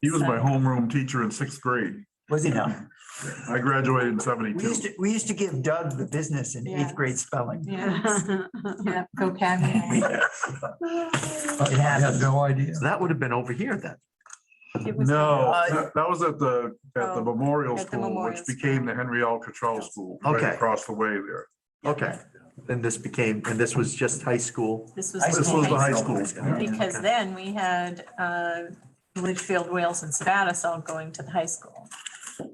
He was my homeroom teacher in sixth grade. Was he now? I graduated in We seventy-two. used to, we used to give Doug the business in Yeah. eighth grade spelling. Yeah, yeah, vocabulary. It happened. no idea. So that would have been over here then. It was- No, Uh, that- that was at the, at the Oh, memorial at the school, which memorial became school. the Henry L. Cottrell School. right Okay. Across the way there. Okay. Then this became, and this was just high school. This I was. This see. was high the high school. school. Yeah. Because then we had uh, Litchfield, Wales and Spatus all going to the high school,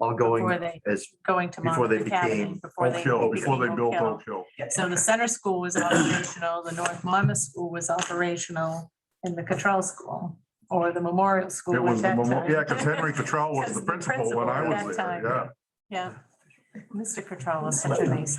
All before going they, as, going to Before they Monmouth Academy. became Before Oak they Hill, before they became built Oak Hill. Oak Hill. So the center school was operational, the North Monmouth School was operational, and the Cottrell School, or the Memorial It School at was the, that memo- time. yeah, because Henry Cottrell was Because the the principal when principal I at was that there, time. yeah. Yeah. Mr. Cottrell was such a nice.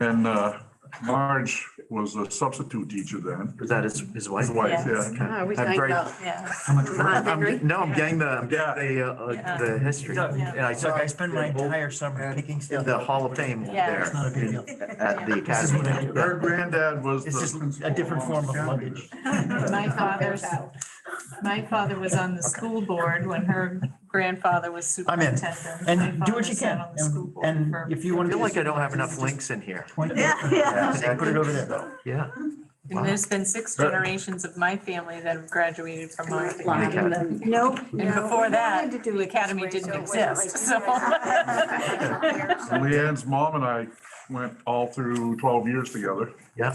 And uh, Marge was a substitute teacher then. was that his, his wife? His wife, Yes. Okay. Ah, we I'm talking very- about Yeah. I'm- I'm- No, I'm getting the, I'm Yeah. getting the, uh, Yeah. the history. Doug, Yeah. And I Doug, took I spend my entire summer picking stuff. the Hall of Fame Yeah. It's not a big deal. there at the This is what I academy. do. Her granddad was. It's the just principal a different at form of Monmouth Academy. luggage. My father's, my father was on the school board when her grandfather was I'm in. superintendent. And My do what father you sat can. on the school And- board And for- if you I want to. feel like I don't have enough links in here. Point. Yeah, yeah. Put it over there. Yeah. And there's been six generations of my family that have graduated from our Line academy. and then- No. And no, before we that, wanted to do the it this academy way, didn't so it wasn't exist, so. like- Leanne's mom and I went all through twelve years together. Yeah.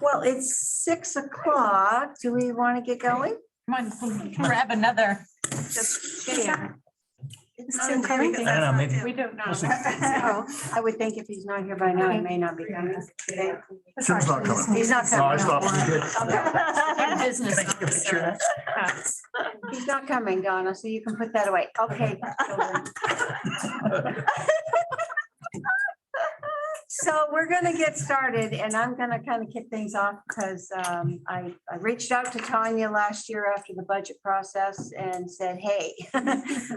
Well, it's six o'clock. Do we want to get going? Come on, grab another. Just share. It's not not very coming. I don't know, maybe. We don't know. So, Oh, I would think if he's not here by now, he may not be coming. Tim's not coming. He's not No, I coming. stopped. Okay. Business. Take a picture of that. He's not coming, Donna, so you can put that away. Okay. children. So we're gonna get started and I'm gonna kind of kick things off because um, I, I reached out to Tanya last year after the budget process and said, hey,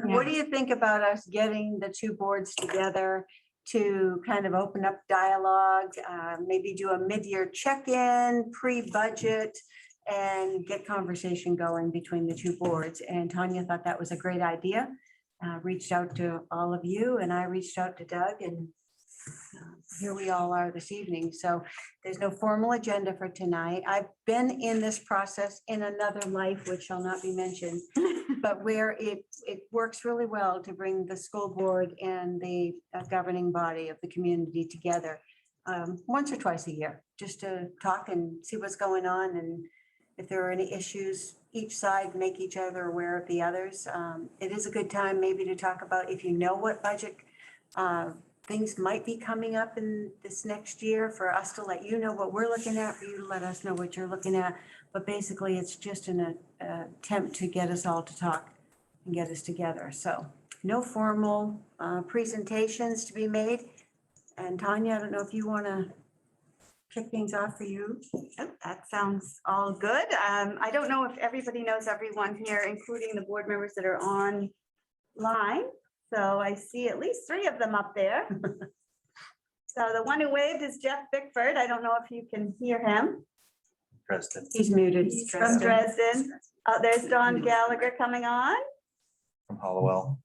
what do you think about us getting the two boards together to kind of open up dialogue, uh, maybe do a mid-year check-in, pre-budget? and get conversation going between the two boards. And Tanya thought that was a great idea. uh, Reached out to all of you and I reached out to Doug and uh, here we all are this evening. So there's no formal agenda for tonight. I've been in this process in another life, which shall not be mentioned, but where it, it works really well to bring the school board and the uh, governing body of the community together um, once or twice a year, just to talk and see what's going on and if there are any issues, each side make each other aware of the others. Um, It is a good time maybe to talk about if you know what budget uh, things might be coming up in this next year for us to let you know what we're looking at, for you to let us know what you're looking at. But basically, it's just an uh, attempt to get us all to talk and get us together. So no formal uh, presentations to be made. And Tanya, I don't know if you want to kick things off for you. Yep, That sounds all good. Um, I don't know if everybody knows everyone here, including the board members that are online. So I see at least three of them up there. So the one who waved is Jeff Bickford. I don't know if you can hear him. President. He's muted. He's from Dresden. Oh, there's Don Gallagher coming on. From Hollowell.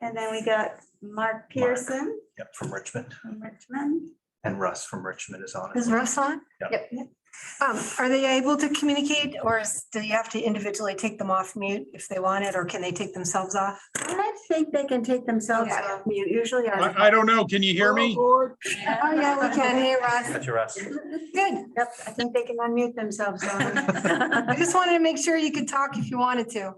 And then we got Mark Pearson Yep, from Richmond. from Richmond. And Russ from Richmond is on Is Russ on? Yep. Yep. Um, are they able to communicate or is, do you have to individually take them off mute if they want it, or can they take themselves off? I think they can take themselves Okay. off mute, usually. our- I, I don't know. Can you hear me? Oh, yeah, we can. Hey, Russ. That's your Russ. Good. Yep, I think they can unmute themselves. I just wanted to make sure you could talk if you wanted to.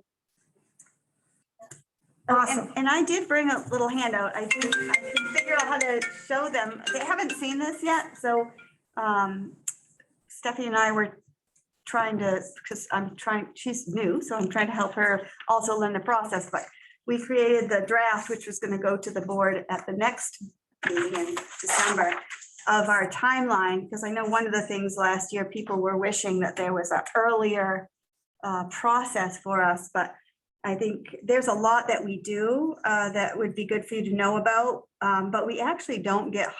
And, Awesome. and I did bring a little handout. I did, I can figure out how to show them. They haven't seen this yet, so, um, Stephanie and I were trying to, because I'm trying, she's new, so I'm trying to help her also learn the process, but we created the draft, which was gonna go to the board at the next meeting in December of our timeline, because I know one of the things last year, people were wishing that there was a earlier uh, process for us, but I think there's a lot that we do uh, that would be good for you to know about, um, but we actually don't get